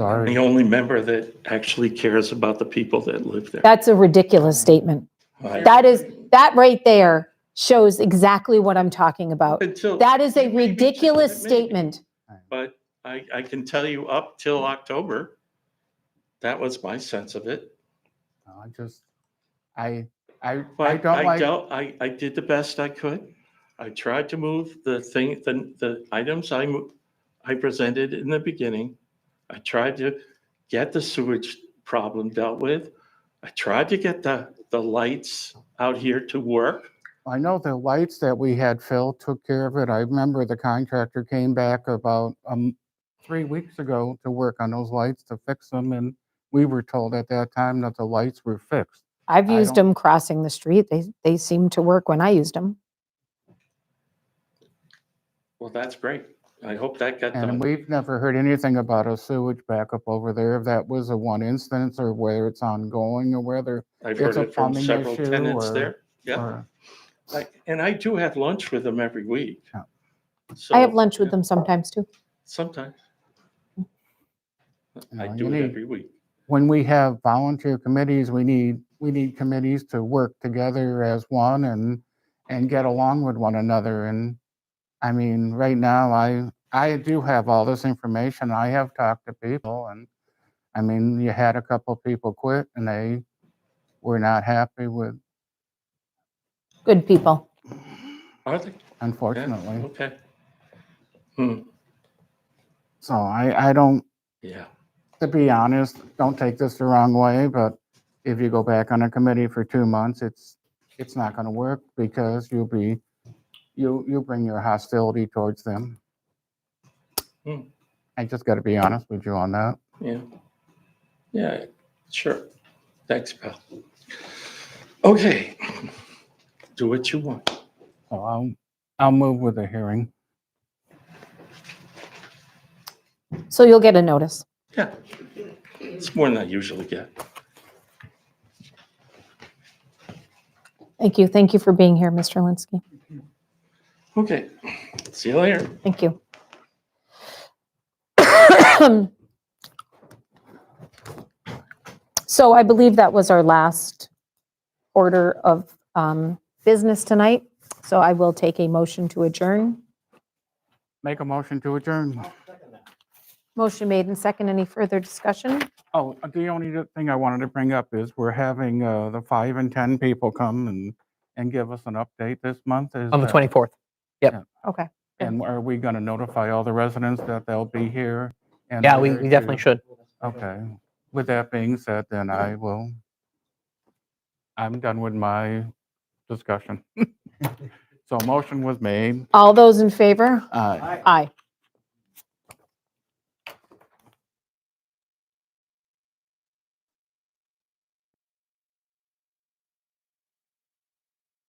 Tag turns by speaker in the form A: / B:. A: I'm
B: Sorry.
A: the only member that actually cares about the people that live there.
C: That's a ridiculous statement.
A: I-
C: That is, that right there shows exactly what I'm talking about.
A: Until,
C: That is a
A: Maybe it's-
C: ridiculous
A: maybe-
C: statement.
A: but I, I can tell you up till October, that was my sense of it.
B: I just, I, I, I
A: But
B: don't
A: I
B: like,
A: don't, I, I did the best I could. I tried to move the thing, the, the items I, mo- I presented in the beginning. I tried to get the sewage problem dealt with. I tried to get the, the lights out here to work.
B: I know the lights that we had, Phil took care of it. I remember the contractor came back about, um, three weeks ago to work on those lights to fix them and we were told at that time that the lights were fixed.
C: I've
B: I
C: used
B: don't-
C: them crossing the street. They, they seem to work when I used them.
A: Well, that's great. I hope that got
B: And
A: done.
B: we've never heard anything about a sewage backup over there. If that was a one instance or whether it's ongoing or whether.
A: I've
B: it's
A: heard
B: a
A: it from
B: plumbing
A: several
B: issue
A: tenants
B: or-
A: there. Yeah.
B: or-
A: I- And I do have lunch with them every week.
B: Yeah.
C: I have
A: So,
C: lunch with
A: yeah,
C: them sometimes too.
A: Sometimes. I
B: No, you
A: do it
B: need-
A: every week.
B: When we have volunteer committees, we need, we need committees to work together as one and, and get along with one another. And I mean, right now, I, I do have all this information. I have talked to people and, I mean, you had a couple people quit and they were not happy with,
C: Good people.
A: Are they?
B: unfortunately.
A: Yeah, okay. Hmm,
B: So I, I don't,
A: yeah.
B: to be honest, don't take this the wrong way, but if you go back on a committee for two months, it's, it's not gonna work because you'll be, you, you bring your hostility towards them.
A: Hmm.
B: I just gotta be honest with you on that.
A: Yeah. Yeah, sure. Thanks, pal. Okay. Do what you want.
B: So I'll, I'll move with the hearing.
C: So you'll get a notice.
A: Yeah. It's more than I usually get.
C: Thank you. Thank you for being here, Mr. Linsky.
A: Okay. See you later.
C: Thank you. So I believe that was our last order of um, business tonight. So I will take a motion to adjourn.
B: Make a motion to adjourn.
C: Motion made and second. Any further discussion?
B: Oh, the only other thing I wanted to bring up is we're having, uh, the five and 10 people come and, and give us an update this month. Is
D: On the
B: that-
D: 24th.
C: Okay. Yeah.
B: And are we going to notify all the residents that they'll be here? and
D: Yeah, we
B: where
D: we definitely
B: to-
D: should.
B: Okay. With that being said, then I will, I'm done with my discussion. So a motion was made.
C: All those in favor?
B: Aye.
C: Aye.